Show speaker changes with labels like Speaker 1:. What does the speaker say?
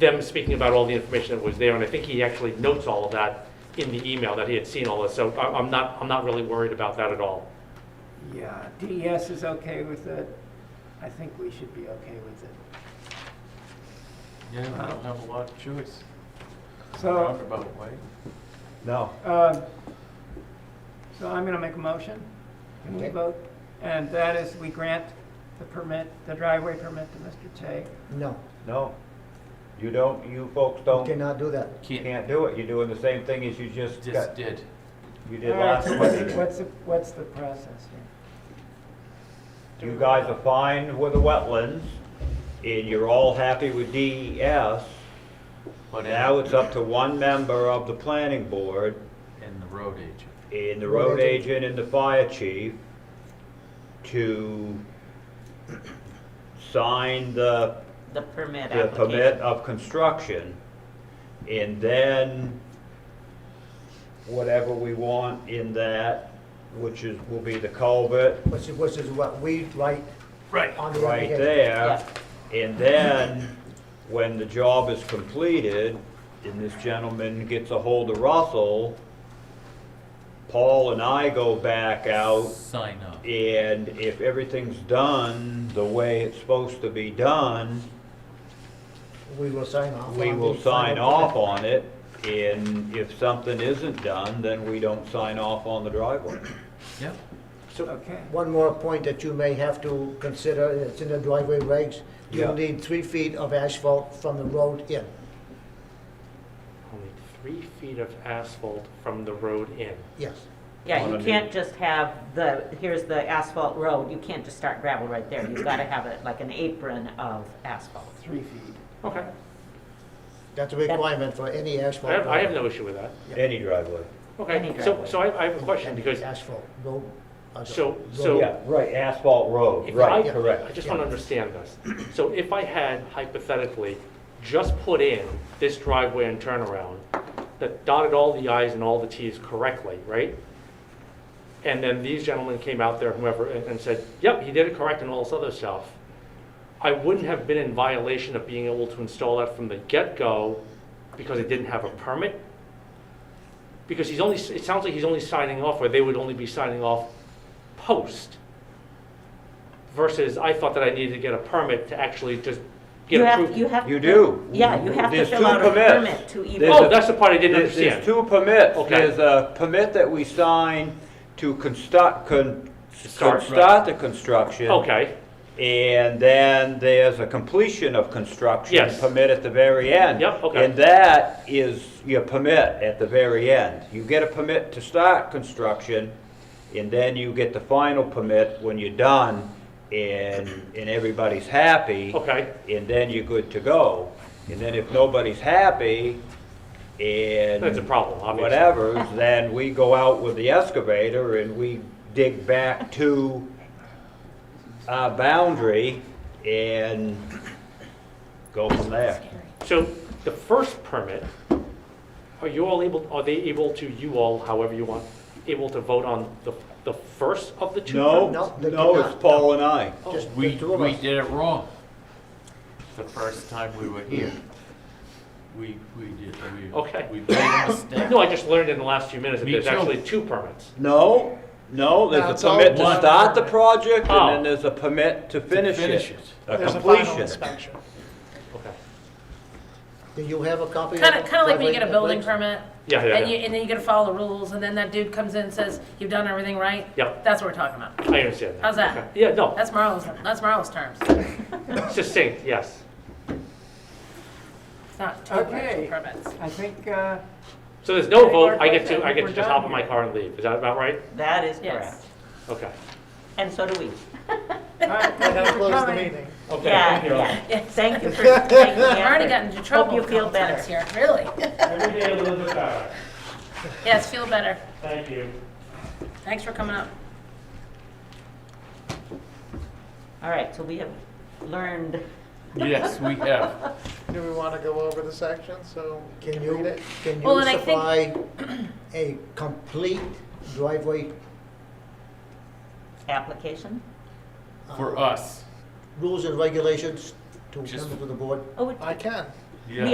Speaker 1: them speaking about all the information that was there, and I think he actually notes all of that in the email, that he had seen all this, so I- I'm not, I'm not really worried about that at all.
Speaker 2: Yeah, DES is okay with it. I think we should be okay with it.
Speaker 3: Yeah, I don't have a lot of choice.
Speaker 2: So,
Speaker 3: Roundabout way.
Speaker 4: No.
Speaker 2: um, so I'm going to make a motion. Can we vote? And that is, we grant the permit, the driveway permit to Mr. Che.
Speaker 5: No,
Speaker 4: No. You don't, you folks
Speaker 5: you
Speaker 4: don't,
Speaker 5: cannot do that.
Speaker 3: Can't,
Speaker 4: can't do it. You're doing the same thing as you just
Speaker 3: just
Speaker 4: got,
Speaker 3: did.
Speaker 4: you
Speaker 2: All
Speaker 4: did
Speaker 2: right,
Speaker 4: last
Speaker 2: so
Speaker 4: week.
Speaker 2: what's, what's, the- what's the process here?
Speaker 4: You guys are fine with the wetlands, and you're all happy with DES.
Speaker 3: But in-
Speaker 4: Now it's up to one member of the planning board,
Speaker 3: And the road agent.
Speaker 4: and the
Speaker 5: Road
Speaker 4: road
Speaker 5: agent.
Speaker 4: agent and the fire chief, to sign the
Speaker 6: The permit
Speaker 4: the
Speaker 6: application.
Speaker 4: permit of construction, and then whatever we want in that, which is, will be the culvert
Speaker 5: Which is, which is what we write
Speaker 3: Right.
Speaker 5: on the
Speaker 4: right
Speaker 5: application.
Speaker 4: there. And then, when the job is completed, and this gentleman gets a hold of Russell, Paul and I go back out
Speaker 3: Sign up.
Speaker 4: and if everything's done the way it's supposed to be done,
Speaker 5: We will sign off.
Speaker 4: we
Speaker 5: on
Speaker 4: will
Speaker 5: the
Speaker 4: sign
Speaker 5: final
Speaker 4: off
Speaker 5: plan.
Speaker 4: on it, and if something isn't done, then we don't sign off on the driveway.
Speaker 3: Yep.
Speaker 2: Okay.
Speaker 5: One more point that you may have to consider, it's in the driveway regs.
Speaker 4: Yeah.
Speaker 5: You'll need three feet of asphalt from the road in.
Speaker 1: Only three feet of asphalt from the road in.
Speaker 5: Yes,
Speaker 6: Yeah,
Speaker 4: on a
Speaker 6: you
Speaker 4: new-
Speaker 6: can't just have the, here's the asphalt road, you can't just start gravel right there. You've got to have it like an apron of asphalt.
Speaker 2: Three feet.
Speaker 1: Okay,
Speaker 5: that's a requirement for any
Speaker 1: I
Speaker 5: asphalt.
Speaker 1: have, I have
Speaker 5: road.
Speaker 1: no issue with that.
Speaker 4: Any driveway.
Speaker 1: Okay,
Speaker 6: Any
Speaker 1: so,
Speaker 6: driveway.
Speaker 1: so I, I have a question,
Speaker 5: Any
Speaker 1: because
Speaker 5: Asphalt, road. uh,
Speaker 1: So-
Speaker 5: road.
Speaker 1: so-
Speaker 4: Yeah, right, asphalt road,
Speaker 1: If
Speaker 4: right,
Speaker 1: I- I
Speaker 4: correct.
Speaker 1: just want to understand this. So if I had hypothetically just put in this driveway and turnaround, that dotted all the i's and all the t's correctly, right? And then these gentlemen came out there, whoever, and and said, yep, he did it correct and all this other stuff. I wouldn't have been in violation of being able to install that from the get-go because I didn't have a permit? Because he's only, it sounds like he's only signing off, or they would only be signing off post versus I thought that I needed to get a permit to actually just get
Speaker 6: You have,
Speaker 1: approved.
Speaker 6: you have.
Speaker 4: You
Speaker 6: to-
Speaker 4: do.
Speaker 6: Yeah, you have to
Speaker 4: There's
Speaker 6: fill
Speaker 4: two
Speaker 6: out a
Speaker 4: permits.
Speaker 6: permit to even.
Speaker 4: There's
Speaker 1: Oh,
Speaker 4: a-
Speaker 1: that's the part I didn't
Speaker 4: There's,
Speaker 1: understand.
Speaker 4: there's two permits.
Speaker 1: Okay.
Speaker 4: There's a permit that we sign to construct, con,
Speaker 1: Start.
Speaker 4: start the construction.
Speaker 1: Okay,
Speaker 4: And then there's a completion of construction
Speaker 1: Yes.
Speaker 4: permit at the very end.
Speaker 1: Yep, okay.
Speaker 4: And that is your permit at the very end. You get a permit to start construction, and then you get the final permit when you're done, and, and everybody's happy.
Speaker 1: okay,
Speaker 4: And then you're good to go. And then if nobody's happy, and.
Speaker 1: That's a problem, obviously.
Speaker 4: Whatever, then we go out with the excavator and we dig back to our boundary and go from there.
Speaker 1: so the first permit, are you all able, are they able to, you all, however you want, able to vote on the, the first of the two?
Speaker 4: No,
Speaker 5: No, they
Speaker 4: no,
Speaker 5: cannot.
Speaker 4: it's Paul and I.
Speaker 5: Just the
Speaker 3: We,
Speaker 5: two of
Speaker 3: we
Speaker 5: us.
Speaker 3: did it wrong. The first time we were here. We, we did, we.
Speaker 1: Okay.
Speaker 3: We made a mistake.
Speaker 1: No, I just learned in the last few minutes that
Speaker 3: Me
Speaker 1: there's
Speaker 3: too.
Speaker 1: actually two permits.
Speaker 4: No, no,
Speaker 5: No,
Speaker 4: there's
Speaker 5: it's
Speaker 4: a
Speaker 5: all
Speaker 4: permit to
Speaker 3: one.
Speaker 4: start the project
Speaker 1: Oh.
Speaker 4: and then there's a permit to finish it.
Speaker 3: finish it.
Speaker 4: A
Speaker 7: There's a final
Speaker 4: completion.
Speaker 7: inspection.
Speaker 1: Okay.
Speaker 5: Do you have a copy?
Speaker 7: Kind of, kind of like when
Speaker 5: driveway
Speaker 7: you get a building
Speaker 5: regs?
Speaker 7: permit.
Speaker 1: Yeah, yeah,
Speaker 7: And you,
Speaker 1: yeah.
Speaker 7: and then you gotta follow the rules, and then that dude comes in and says, you've done everything right?
Speaker 1: Yep.
Speaker 7: That's what we're talking about.
Speaker 1: I understand that.
Speaker 7: How's that?
Speaker 1: Okay. Yeah, no,
Speaker 7: That's Marlo's, that's Marlo's terms.
Speaker 1: succinct, yes.
Speaker 7: It's not total
Speaker 2: Okay.
Speaker 7: actual permits.
Speaker 2: I think, uh,
Speaker 1: So there's no
Speaker 2: Any more
Speaker 1: vote, I get to, I
Speaker 2: questions?
Speaker 1: get to
Speaker 2: We're
Speaker 1: just
Speaker 2: done
Speaker 1: hop in my
Speaker 2: here.
Speaker 1: car and leave, is that about right?
Speaker 6: That is
Speaker 7: Yes.
Speaker 6: correct.
Speaker 1: Okay.
Speaker 6: And so do we.
Speaker 2: all right,
Speaker 5: And
Speaker 2: thank you
Speaker 5: I'll
Speaker 2: for
Speaker 5: close the
Speaker 2: coming.
Speaker 5: meeting.
Speaker 1: Okay.
Speaker 6: Yeah,
Speaker 1: thank you all.
Speaker 6: yeah. Thank you for taking the
Speaker 7: I've already
Speaker 6: effort.
Speaker 7: gotten into trouble
Speaker 6: you
Speaker 7: a
Speaker 6: feel
Speaker 7: couple times here, really.
Speaker 1: Every day a little bit better.
Speaker 7: Yes, feel better.
Speaker 1: Thank you.
Speaker 7: Thanks for coming up.
Speaker 6: All right, so we have learned,
Speaker 3: Yes, we have.
Speaker 8: Do we want to go over the section, so?
Speaker 5: Can you,
Speaker 8: it.
Speaker 5: can
Speaker 7: Well,
Speaker 5: you
Speaker 7: and I
Speaker 5: supply
Speaker 7: think-
Speaker 5: a complete driveway
Speaker 6: application?
Speaker 3: For us.
Speaker 5: rules and regulations to
Speaker 3: Just-
Speaker 5: come to the board?
Speaker 6: Oh, it
Speaker 8: I can.
Speaker 3: Yeah.